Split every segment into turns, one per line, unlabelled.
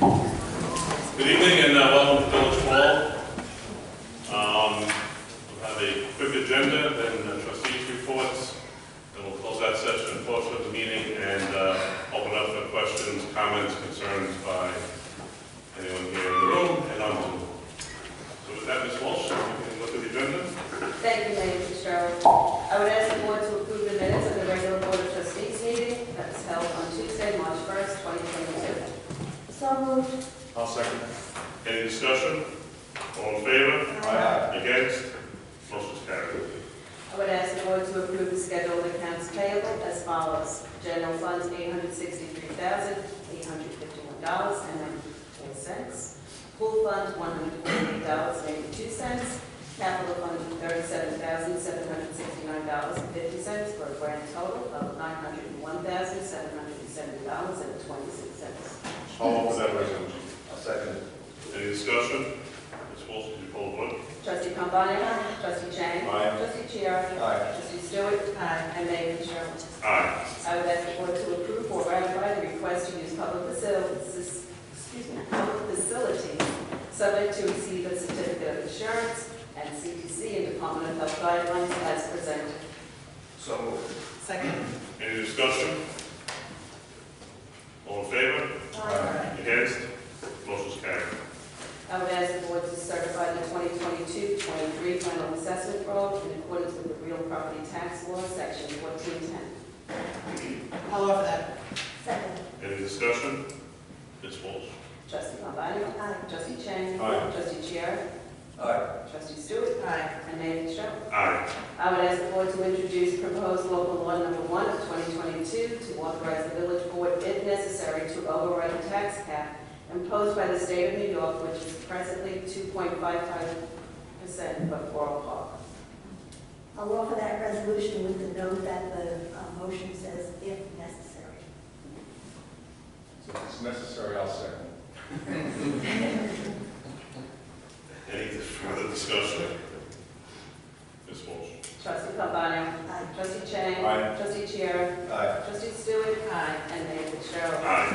Good evening and uh, welcome to Village Hall. Um, We'll have a quick agenda, then the trustees' reports, then we'll close that session, and portion of the meeting, and uh, open up for questions, comments, concerns by anyone here in the room and on Zoom. So with that, Ms. Walsh, you can look at the agenda.
Thank you, Lady Fitzgerald. I would ask the board to approve the minutes of the regular Board of Trustees meeting that was held on Tuesday, March 1st, 2022. So moved.
I'll second. Any discussion? All in favor? Against? Motion's carried.
I would ask the board to approve the schedule of accounts payable as follows. General funds, $863,851.94. Pool fund, $148.82. Capital fund, $37,769.50 for a grand total of $901,770.26.
All for that resolution.
I'll second it.
Any discussion? Ms. Walsh, can you pull the vote?
Trustee Pombana. Trustee Chang.
Aye.
Trustee Chiara.
Aye.
Trustee Stewart. And Mayor Fitzgerald.
Aye.
I would ask the board to approve or ratify the request to use public facilities, excuse me, public facilities, subject to receive a certificate of insurance and CDC and Department of Health guidelines as presented.
So moved.
Second.
Any discussion? All in favor? Against? Motion's carried.
I would ask the board to certify the 2022-23 final assessment roll in accordance with the real property tax law, section 1410.
I'll offer that.
Second.
Any discussion? Ms. Walsh?
Trustee Pambana. Trustee Chang.
Aye.
Trustee Chiara.
Aye.
Trustee Stewart.
Aye.
And Mayor Fitzgerald.
Aye.
I would ask the board to introduce proposed local law number one of 2022 to authorize the village board, if necessary, to override the tax cap imposed by the state of New York, which is presently 2.55% of Borough Park.
I'll offer that resolution with the note that the uh, motion says if necessary.
So if it's necessary, I'll second.
Any further discussion? Ms. Walsh?
Trustee Pambana.
Aye.
Trustee Chang.
Aye.
Trustee Chiara.
Aye.
Trustee Stewart. Aye. And Mayor Fitzgerald.
Aye.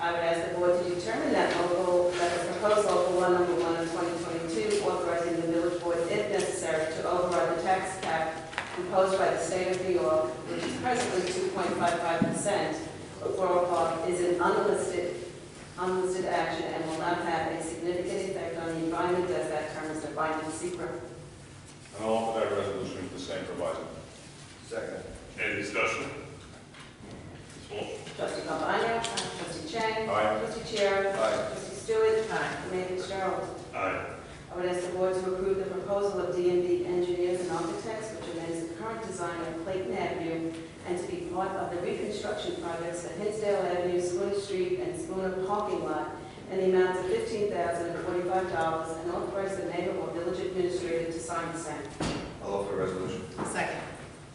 I would ask the board to determine that local, that the proposed local law number one of 2022 authorizing the village board, if necessary, to override the tax cap imposed by the state of New York, which is presently 2.55% of Borough Park, is an unlisted, unlisted action and will not have a significant effect on the environment as that term is defined in secret.
And all for that resolution with the same proviso.
Second.
Any discussion? Ms. Walsh?
Trustee Cambani. Trustee Chang.
Aye.
Trustee Chair.
Aye.
Trustee Stewart. Mayor Fitzgerald.
Aye.
I would ask the board to approve the proposal of d and B Engineers and Architects, which amends the current design of Clayton Avenue and to be part of the reconstruction projects for Hinsdale Avenue, Spooner Street, and Spooner Parking Lot in the amount of fifteen thousand and forty-five dollars, and authorize the mayor or village administrator to sign the same.
I'll offer a resolution.
Second.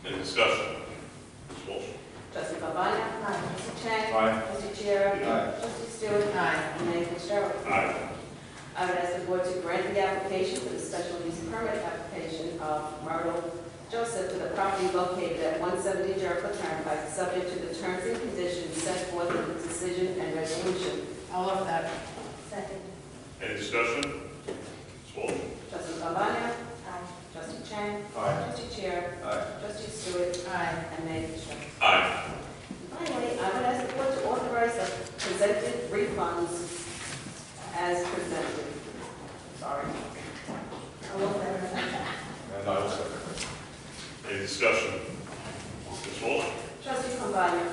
Any discussion? Ms. Walsh?
Trustee Pabana? Trustee Chang?
Aye.
Trustee Chiara?
Aye.
Trustee Stewart?
Aye.
And Mayor Fitzgerald?
Aye.
I would ask the board to grant the application for the special use permit application of Myrtle Joseph for the property located at 170 Jericho Turnpike, subject to the terms and conditions set forth in the decision and resolution.
I'll offer that.
Second.
Any discussion? Ms. Walsh?
Trustee Pambana?
Aye.
Trustee Chang?
Aye.
Trustee Chair?
Aye.
Trustee Stewart?
Aye.
And Mayor Fitzgerald.
Aye.
Finally, I would ask the board to authorize the presented refunds as presented. Sorry.
I'll offer that resolution.
And I will second.
Any discussion? Ms. Walsh?
Trustee Pambana?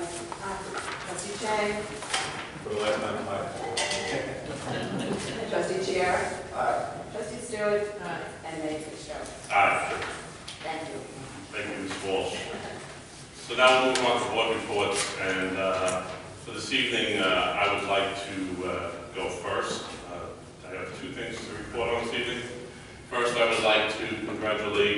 Trustee Chang?
For the last time, aye.
Trustee Chair?
Aye.
Trustee Stewart
Aye.
and Mayor Fitzgerald.
Aye.
Thank you.
Thank you, Ms. Walsh. So now we'll move on to board reports, and uh, for this evening, uh, I would like to uh, go first. Uh, I have two things to report on this evening. First, I would like to congratulate